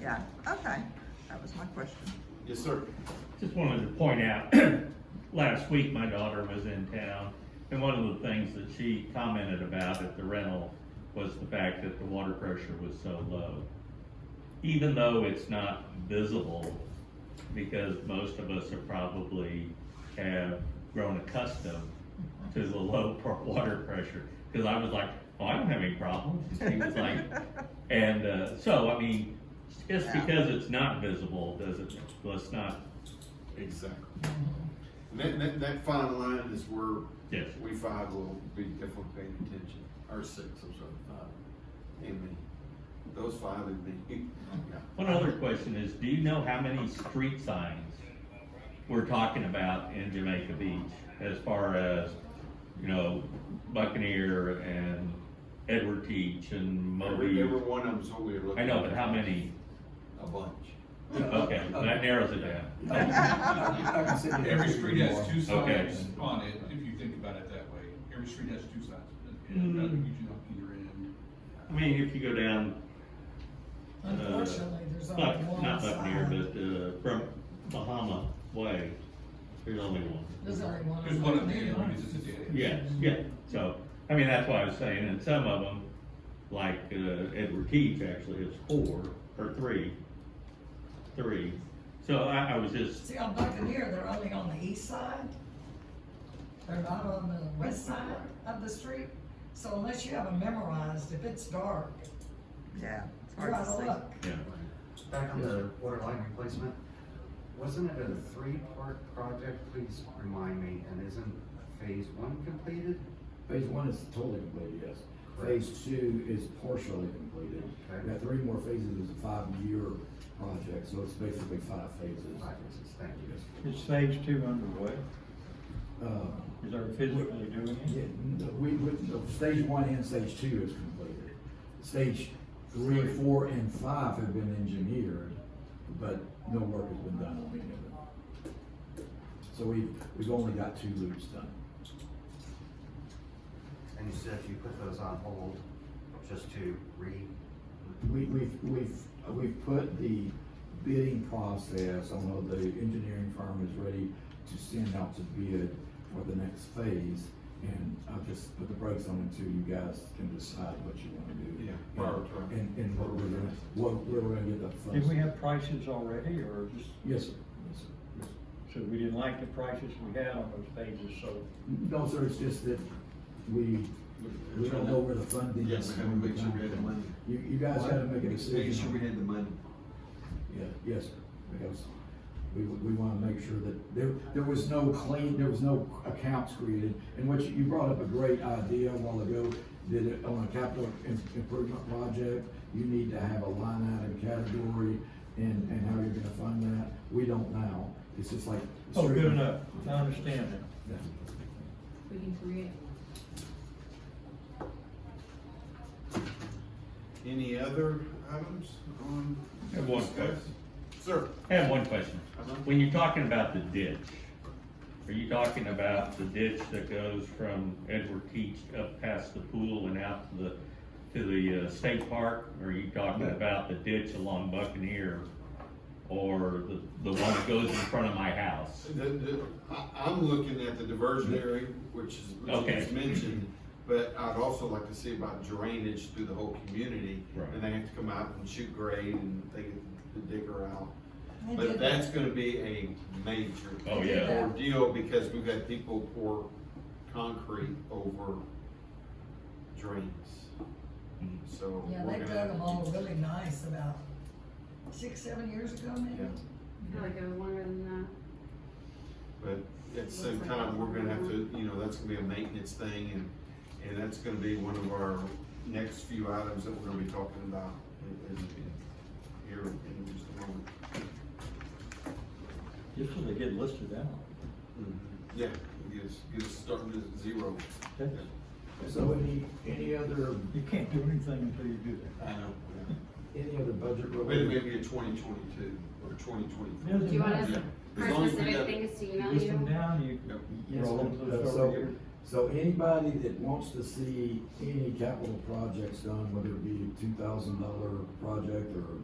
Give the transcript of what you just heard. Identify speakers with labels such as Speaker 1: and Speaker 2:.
Speaker 1: Yeah, okay, that was my question.
Speaker 2: Yes, sir.
Speaker 3: Just wanted to point out, last week, my daughter was in town, and one of the things that she commented about at the rental was the fact that the water pressure was so low. Even though it's not visible, because most of us are probably have grown accustomed to the low pr- water pressure. Because I was like, oh, I don't have any problems. And She was like, and uh, so, I mean, just
Speaker 1: Yeah.
Speaker 3: because it's not visible, doesn't, let's not
Speaker 2: Exactly. And that, that, that fine line is where
Speaker 3: Yes.
Speaker 2: we five will be definitely paying attention, or six, I'm sorry, five, and me. Those five and me, yeah.
Speaker 3: One other question is, do you know how many street signs we're talking about in Jamaica Beach? As far as, you know, Buccaneer and Edward Teach and
Speaker 2: Every,
Speaker 3: Moby?
Speaker 2: every one of them's what we're looking.
Speaker 3: I
Speaker 2: at.
Speaker 3: know, but how many?
Speaker 2: A bunch.
Speaker 3: Okay, that narrows it down.
Speaker 4: Every street has two
Speaker 3: Okay.
Speaker 4: signs on it, if you think about it that way. Every street has two signs. And
Speaker 3: Mm.
Speaker 4: another usually on either end.
Speaker 3: I mean, if you go down, uh,
Speaker 5: Unfortunately, there's only
Speaker 3: Buck-
Speaker 5: one
Speaker 3: not Buccaneer,
Speaker 5: sign.
Speaker 3: but, uh, from Bahama Way, there's only one.
Speaker 5: There's only one.
Speaker 4: There's one on the end, because it's a dead end.
Speaker 3: Yes, yeah, so, I mean, that's why I was saying, and some of them, like, uh, Edward Keith actually has four, or three, three. So I, I was just,
Speaker 5: See, on Buccaneer, they're only on the east side. They're not on the west side of the street. So unless you have them memorized, if it's dark,
Speaker 1: Yeah, it's
Speaker 5: you're
Speaker 1: hard
Speaker 5: out
Speaker 1: to
Speaker 5: of luck.
Speaker 1: see.
Speaker 3: yeah,
Speaker 6: Back on the water line replacement, wasn't it a three-part project? Please remind me, and isn't phase one completed?
Speaker 7: Phase one is totally completed, yes. Phase two is partially completed.
Speaker 6: Okay.
Speaker 7: We have three more phases, it's a five-year project, so it's basically five phases.
Speaker 6: Five phases, thank you.
Speaker 8: Is phase two underway?
Speaker 7: Uh,
Speaker 8: Is there physically doing
Speaker 7: yeah,
Speaker 8: it?
Speaker 7: no, we, we, no, stage one and stage two is completed. Stage three, four, and five have been engineered, but no work has been done on any of it. So we, we've only got two loops done.
Speaker 6: And you said you put those on hold just to re,
Speaker 7: We, we've, we've, we've put the bidding process, I know the engineering firm is ready to send out to bid for the next phase. And I'll just put the brakes on until you guys can decide what you wanna do.
Speaker 2: Yeah,
Speaker 7: And-
Speaker 2: prioritize.
Speaker 7: And, and what we're gonna, what, where we're gonna get the funds.
Speaker 8: Did we have prices already, or just,
Speaker 7: Yes, sir, yes, sir, yes, sir.
Speaker 8: so we didn't like the prices we had on those phases, so
Speaker 7: No, sir, it's just that we, we don't know where the funding is.
Speaker 2: Yes, we gotta make sure we have the money.
Speaker 7: You, you guys gotta make a decision.
Speaker 2: Make sure
Speaker 7: on-
Speaker 2: we had the money.
Speaker 7: Yeah, yes, sir, because we, we want to make sure that there, there was no clean, there was no accounts created. And what you, you brought up a great idea a while ago, that it- on a capital im- improvement project, you need to have a line item category and, and how you're gonna fund that. We don't now. It's just like.
Speaker 8: Oh, good enough, I understand that.
Speaker 7: Yeah.
Speaker 9: We can create
Speaker 2: Any other items on?
Speaker 3: I have one
Speaker 2: discuss?
Speaker 3: question.
Speaker 2: Sir,
Speaker 3: I have one question.
Speaker 2: Uh-huh.
Speaker 3: When you're talking about the ditch, are you talking about the ditch that goes from Edward Teach up past the pool and out to the, to the uh, state park? Or are you talking
Speaker 7: No.
Speaker 3: about the ditch along Buccaneer? Or the, the one that goes in front of my house?
Speaker 2: the, the, I, I'm looking at the diversionary, which is, which
Speaker 3: Okay.
Speaker 2: is mentioned, but I'd also like to see about drainage through the whole community.
Speaker 3: Right.
Speaker 2: And they have to come out and shoot grade and they get the digger out.
Speaker 5: They
Speaker 2: But
Speaker 5: did
Speaker 2: that's gonna be a major
Speaker 3: Oh, yeah.
Speaker 2: ordeal because we've got people pour concrete over drains.
Speaker 3: Mm-hmm.
Speaker 2: So.
Speaker 5: Yeah,
Speaker 2: we're
Speaker 5: they
Speaker 2: gonna
Speaker 5: dug them all
Speaker 2: have to-
Speaker 5: really nice about six, seven years ago maybe.
Speaker 2: Yeah.
Speaker 9: probably go longer than
Speaker 2: But at the same time, we're gonna have to, you know, that's gonna be a maintenance thing and, and that's gonna be one of our next few items that we're gonna be talking about in, in, in- here in just a moment.
Speaker 8: Just so they get listed out.
Speaker 2: Mm-hmm. Yeah, it is, it's starting at zero.
Speaker 8: Okay.
Speaker 7: So any, any other,
Speaker 8: You can't do anything until you do
Speaker 2: I know.
Speaker 7: any other budget
Speaker 2: But it may
Speaker 7: related?
Speaker 2: be a twenty twenty-two or twenty
Speaker 8: that.
Speaker 2: twenty-four.
Speaker 9: that. Do you want us,
Speaker 2: Yeah. As
Speaker 9: our
Speaker 2: long as we
Speaker 9: specific
Speaker 2: got-
Speaker 9: thing is to email
Speaker 8: List them
Speaker 9: you?
Speaker 8: down, you
Speaker 2: Yep.
Speaker 7: Yes,
Speaker 8: roll
Speaker 7: sir.
Speaker 8: them to the
Speaker 7: Uh,
Speaker 8: over
Speaker 7: so-
Speaker 8: here.
Speaker 7: So anybody that wants to see any capital projects done, whether it be a two thousand dollar project or